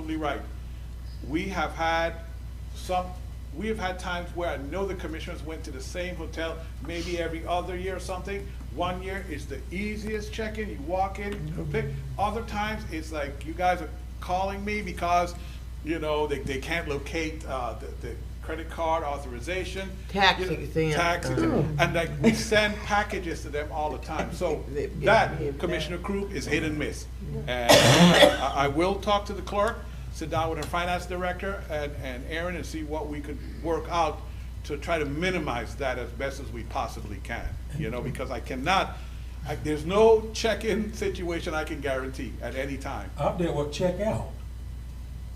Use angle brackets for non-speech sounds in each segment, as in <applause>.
right. We have had some, we have had times where I know the commissioners went to the same hotel, maybe every other year or something. One year is the easiest check-in, you walk in, you pick. Other times, it's like, you guys are calling me because, you know, they, they can't locate, uh, the, the credit card authorization. Tax You know, exempt. Tax, Oh. exempt. and like, we send packages to them all the time. So <laughs> They- they- that, they- Commissioner Crew is hit and miss. And I I will talk to the clerk, sit down with our finance director and, and Aaron and see what we could work out to try to minimize that as best as we possibly can, you know, because I cannot, I- there's no check-in situation I can guarantee at any time. I've dealt with check out.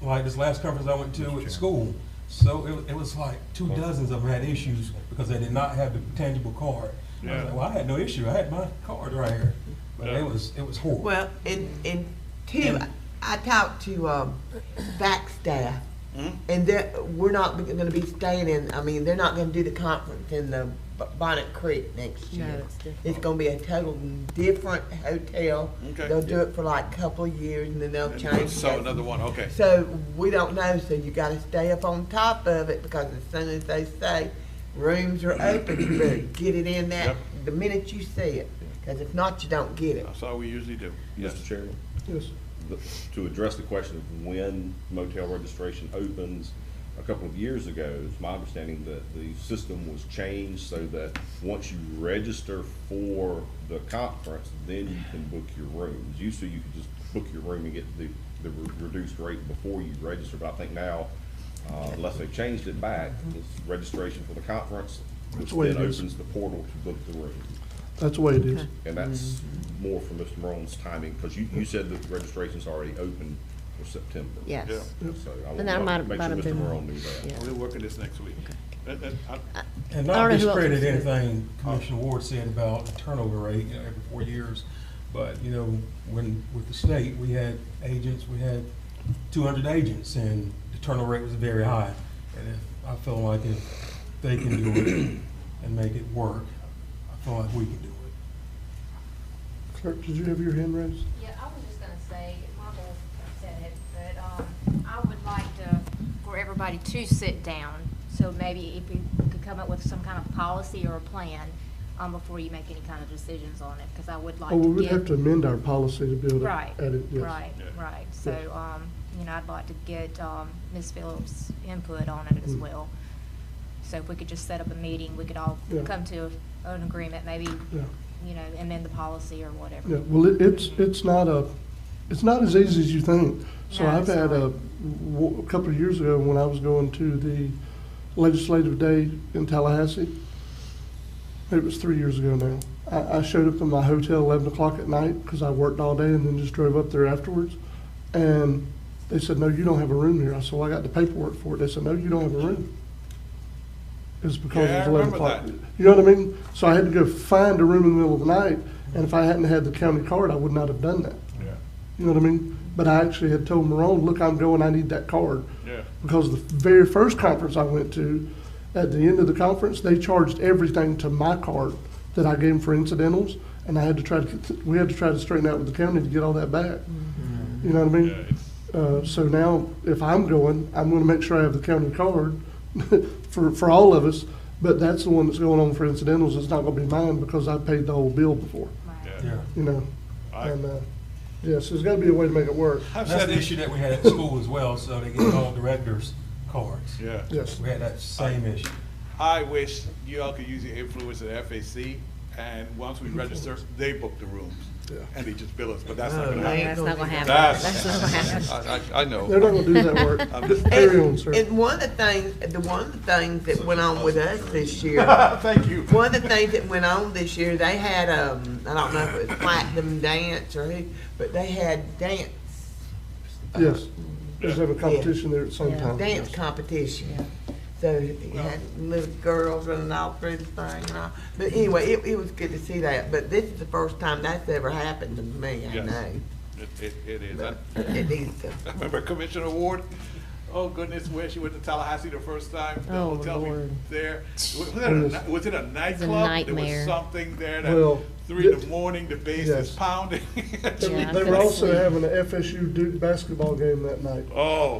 Like this last conference I went to at school, so it, wa- it was like two dozens of them had issues because they did not have the tangible card. I Yeah. was like, well, I had no issue, I had my card right here, but Yeah. it was, it was horrible. Well, and, and Tim, I talked to, um, back staff, Hmm? and they're, we're not gonna be staying in, I mean, they're not gonna do the conference in the B- Bonnet Creek next No, year. it's different. It's gonna be a total different hotel. Okay. They'll do it for like a couple of years, and then they'll change. So it. another one, okay. So we don't know, so you gotta stay up on top of it, because as soon as they say rooms are open, you better get it in that, Yep. the minute you see it, because if not, you don't get it. That's all we usually do. Mr. Chairman? Yes. the- To address the question of when motel registration opens, a couple of years ago, it's my understanding that the system was changed so that once you register for the conference, then you can book your rooms. Used to, you could just book your room and get the, the re- reduced rate before you register, but I think now, uh, unless they've changed it back, it's registration for the conference, which That's the way then it is. opens the portal to book the room. That's the way it is. And that's more for Mr. Marone's timing, because you, you said that registration's already open for September. Yeah. Yes. So I And that might want have- to make might sure Mr. have been- Marone knew that. yeah. We're working this next week. Uh, That- that- I- And not I don't know who else discredit is here. anything Commissioner Ward said about the turnover rate, you know, every four years. But, you know, when, with the state, we had agents, we had two hundred agents, and the turnover rate was very high. And if, I feel like if they can do it and make it work, I feel like we can do it. Clerk, did you have your hand raised? Yeah, I was just gonna say, Michael said it, but, um, I would like to, for everybody to sit down. So maybe if you could come up with some kind of policy or a plan, um, before you make any kind of decisions on it, cause I would like Oh, to we get. would have to amend our policy to be able to Right, add it, yes. right, Yeah. right. Yes. So, um, you know, I'd like to get, um, Ms. Phillips' input on it as Mm. well. So if we could just set up a meeting, we could all Yeah. come to an agreement, maybe, Yeah, you know, amend the policy or whatever. yeah, well, it, it's, it's not a, it's not as easy as you think. So No, I've it's had not. a, w- a couple of years ago, when I was going to the legislative day in Tallahassee, it was three years ago now, I, I showed up in my hotel eleven o'clock at night, because I worked all day and then just drove up there afterwards. And they said, no, you don't have a room here. I said, well, I got the paperwork for it. They said, no, you don't have a room. It's because Yeah, I it was eleven remember o'clock. that. You know what I mean? So I had to go find a room in the middle of the night, and if I hadn't had the county card, I would not have done that. Yeah, You know what I mean? But I actually had told Marone, look, I'm going, I need that card. yeah. Because the very first conference I went to, at the end of the conference, they charged everything to my card that I gave them for incidentals, and I had to try to, we had to try to straighten out with the county to get all that back. You know what I mean? Yeah, it's- Uh, so now, if I'm going, I'm gonna make sure I have the county card <laughs> for, for all of us, but that's the one that's going on for incidentals, it's not gonna be mine because I paid the whole bill before, Right. Yeah. Yeah. you know? I- And, uh, yeah, so there's gotta be a way to make it work, I've That's said the it- issue that we had at school as well, so they get all directors' cards. Yeah. yes. We had that same issue. I wish you all could use your influence at FAC, and once we register, they book the rooms, Yeah. and they just bill us, but that's not Oh, gonna man. happen. <laughs> That's not gonna happen. That's, That's not gonna happen. I, I I They're not know. gonna do that work, <laughs> I'm just just- carry on, sir. And one of the things, the one of the things that went on with us this <laughs> year, Ah, Thank you. one of the things that went on this year, they had, um, I don't know if it was Platinum Dance or who, but they had dance, Yes, just have a competition there at some time. dance yes. competition. So you had little girls running all through the thing and all, but anyway, it, it was good to see that, but this is the first time that's ever happened to me, I Yes. know. It, it, it is. I But It needs to. I remember Commissioner Ward, oh goodness, where she went to Tallahassee the first time, the Oh, hotel we Lord. there. Was it a, ni- was it a nightclub? There was nightmare. something there Well, that, three in th- the morning, the bass yes. is pounding. <laughs> Yeah. They were also having an FSU Duke basketball game that night. Oh,